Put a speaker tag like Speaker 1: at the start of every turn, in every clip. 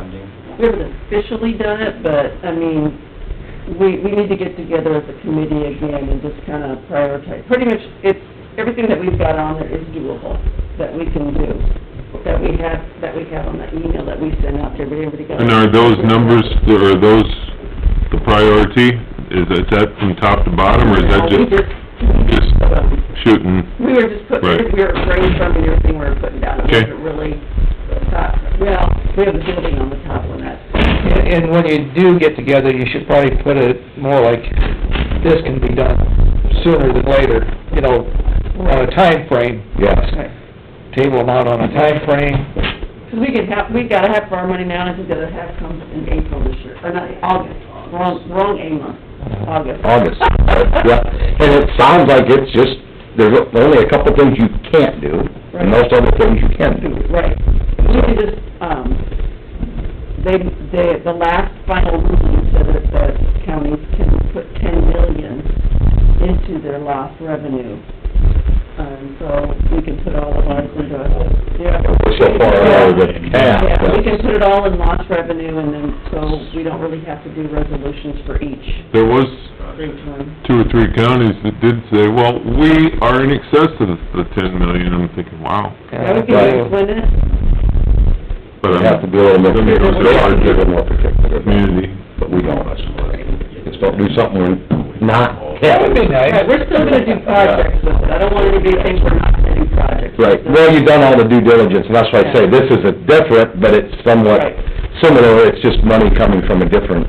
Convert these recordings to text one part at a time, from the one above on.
Speaker 1: we haven't officially done it, but, I mean, we, we need to get together as a committee again and just kind of prioritize. Pretty much, it's, everything that we've got on there is doable, that we can do, that we have, that we have on that email that we send out to everybody. Everybody got-
Speaker 2: And are those numbers, are those the priority? Is that, is that from top to bottom, or is
Speaker 1: No,
Speaker 2: that
Speaker 1: we
Speaker 2: just just- shooting?
Speaker 1: We were just putting,
Speaker 2: Right.
Speaker 1: we were brainstorming everything we were putting down, it
Speaker 2: Okay.
Speaker 1: wasn't really, thought- well, we have a building on the top one, that's,
Speaker 3: And and when you do get together, you should probably put it more like, this can be done sooner than later, you know, on a time frame.
Speaker 4: Yes.
Speaker 3: Table them out on a time frame.
Speaker 1: because we could have, we gotta have our money now, and I think the other half comes in April this year, or not, August, wrong, wrong A month, August.
Speaker 4: August, yeah, and it sounds like it's just, there's only a couple things you can't do, and most other things you can do.
Speaker 1: Right, we could just, um, they, they, the last final ruling said that the counties can put ten million into their lost revenue. Um, so we can put all of ours into, a- yeah.
Speaker 4: We're so far over the half.
Speaker 1: Yeah, we can put it all in lost revenue and then, so we don't really have to do resolutions for each,
Speaker 2: There was
Speaker 1: for each one.
Speaker 2: two or three counties that did say, well, we are in excess of the ten million, I'm thinking, wow.
Speaker 1: Yeah, we can explain it,
Speaker 2: But
Speaker 4: We
Speaker 2: I'm-
Speaker 4: have to be a little more,
Speaker 2: Then it goes
Speaker 4: we have to be a little
Speaker 2: to
Speaker 4: more particular,
Speaker 2: our community.
Speaker 4: but we don't, I suppose. Just don't do something we're not.
Speaker 3: That would be nice.
Speaker 1: Right, we're still gonna do projects with it, I don't want anybody to think we're not gonna do projects.
Speaker 4: Right, well, you've done all the due diligence, and that's why I say, this is a different, but it's somewhat
Speaker 1: Right.
Speaker 4: similar, it's just money coming from a different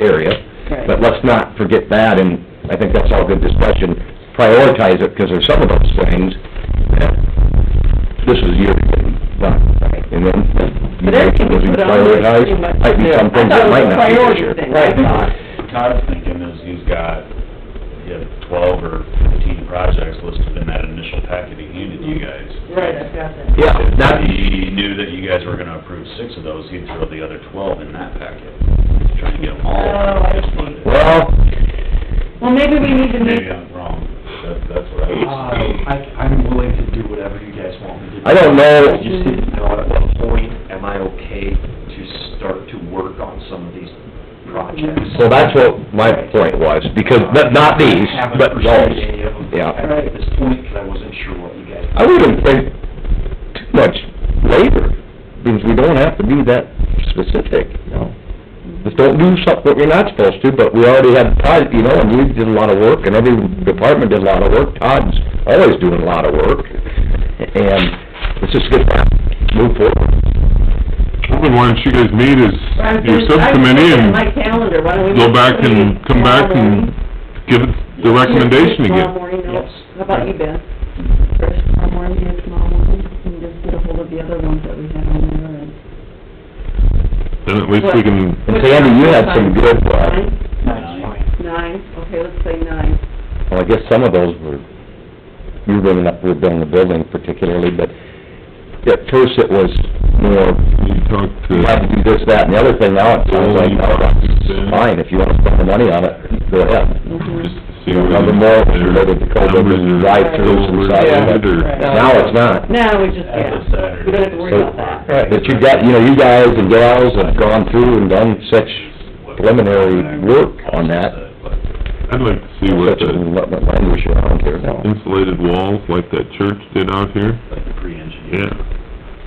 Speaker 4: area.
Speaker 1: Right.
Speaker 4: But let's not forget that, and I think that's all good discussion, prioritize it, because there's some of those things that this is your getting done. And then, you
Speaker 1: But that can be put on there
Speaker 4: prioritize,
Speaker 1: pretty much.
Speaker 4: might be some things that might not be this year.
Speaker 1: I thought it was a priority thing, I thought.
Speaker 5: Todd's thinking is he's got, he had twelve or fifteen projects listed in that initial packet he handed you guys.
Speaker 1: Right, I've got that.
Speaker 4: Yeah,
Speaker 5: If
Speaker 4: that,
Speaker 5: he knew that you guys were gonna approve six of those, he'd throw the other twelve in that packet. He's Trying to get them all
Speaker 1: Oh, I
Speaker 5: just
Speaker 1: see.
Speaker 5: funded.
Speaker 4: well,
Speaker 1: Well, maybe we need to make,
Speaker 5: Maybe I'm wrong, that, that's what I
Speaker 6: Uh,
Speaker 5: was.
Speaker 6: I, I'm willing to do whatever you guys want me to do.
Speaker 4: I don't know.
Speaker 6: I just didn't know at what point am I okay to start to work on some of these projects.
Speaker 4: so that's what my point was, because, but not these,
Speaker 6: I haven't
Speaker 4: but
Speaker 6: pursued any
Speaker 4: those.
Speaker 6: of them
Speaker 4: Yeah.
Speaker 6: At this point, because I wasn't sure what you guys.
Speaker 4: I wouldn't think too much labor, because we don't have to be that specific, you know? Just don't do something that you're not supposed to, but we already had Todd, you know, and you did a lot of work, and every department did a lot of work. Todd's always doing a lot of work, and it's just good to move forward.
Speaker 2: I've been wanting you guys meet
Speaker 1: I'm
Speaker 2: as your
Speaker 1: just, I'm
Speaker 2: subcommittee
Speaker 1: looking at my
Speaker 2: and
Speaker 1: calendar, why don't we...
Speaker 2: go back and
Speaker 1: make-
Speaker 2: come back and give it the recommendation
Speaker 1: Tomorrow
Speaker 2: again.
Speaker 1: morning, I'll- how about you, Ben? First, tomorrow morning, do it tomorrow morning, and just get ahold of the other ones that we have on there and...
Speaker 2: Then at least we can,
Speaker 4: And Sandy, you had some good, uh,
Speaker 1: Nine?
Speaker 6: That's fine.
Speaker 1: Nine, okay, let's say nine.
Speaker 4: well, I guess some of those were, you were bringing up, we were building the building particularly, but at first it was more
Speaker 2: you talk
Speaker 4: you have
Speaker 2: to,
Speaker 4: to do this, that, and the other thing, now it sounds like, oh, that's fine, if you wanna spend the money on it, go ahead.
Speaker 1: Mm-hmm.
Speaker 2: just to see
Speaker 4: You
Speaker 2: whether...
Speaker 4: know, the more it's
Speaker 2: their
Speaker 4: related to COVID,
Speaker 2: numbers are
Speaker 4: drive-throughs and stuff,
Speaker 2: overloaded
Speaker 4: but
Speaker 2: or-
Speaker 1: Right.
Speaker 4: now it's not.
Speaker 1: Now, we just,
Speaker 5: That's a
Speaker 1: yeah,
Speaker 5: Saturday.
Speaker 1: we don't have to worry about that.
Speaker 3: Right.
Speaker 4: But you got, you know, you guys and gals have gone through and done such preliminary work on that,
Speaker 2: I'd like to see what
Speaker 4: such
Speaker 2: the
Speaker 4: a
Speaker 2: Hmm?
Speaker 4: what- what language you're on here now.
Speaker 2: insulated walls like that church did out here,
Speaker 5: Like the pre-engineered.
Speaker 2: yeah.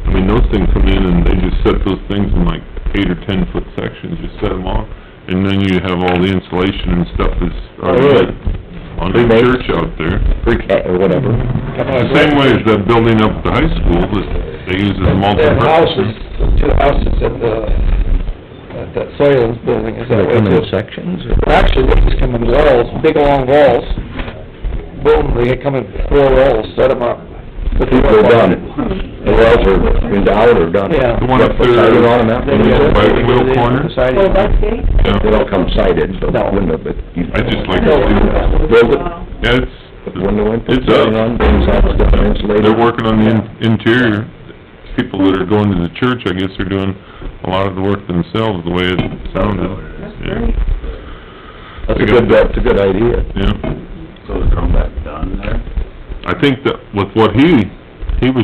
Speaker 2: I mean, those things come in and they just set those things in like eight or ten foot sections, just set them off, and then you have all the insulation and stuff that's
Speaker 4: really?
Speaker 2: already on the
Speaker 4: Pre-made?
Speaker 2: church out there.
Speaker 4: Pre-K, or whatever.
Speaker 3: Hmm.
Speaker 2: The same way as that building up at the high school, that they use as multi
Speaker 3: The houses, the two houses at the, at that Soils building is that
Speaker 4: They
Speaker 3: way
Speaker 4: come in
Speaker 3: too.
Speaker 4: sections,
Speaker 3: Actually, they just come in walls, big long walls. Boom, they come in four rolls, set them up.
Speaker 4: but people are done, the wells are in doubt or done.
Speaker 3: Yeah.
Speaker 2: The one up there-
Speaker 4: Siding on them, that
Speaker 2: Then you
Speaker 4: one.
Speaker 2: got- By the wheel corner?
Speaker 3: Decided-
Speaker 1: Well, that's great.
Speaker 4: They
Speaker 2: Yeah,
Speaker 4: don't come sighted, so
Speaker 3: No.
Speaker 4: window, but you...
Speaker 2: I just like to see
Speaker 4: Build it,
Speaker 1: Wow.
Speaker 2: Yeah, it's,
Speaker 4: put the window in, put
Speaker 2: It's
Speaker 4: siding
Speaker 2: up.
Speaker 4: on, things out, it's done, insulated.
Speaker 2: they're working on the in- interior. People that are going to the church, I guess they're doing a lot of the work themselves, the way it sounded.
Speaker 1: That's
Speaker 2: Yeah,
Speaker 1: great.
Speaker 4: That's a good, that's a good idea.
Speaker 2: Yeah,
Speaker 5: So is Chrome back done there?
Speaker 2: I think that with what he, he was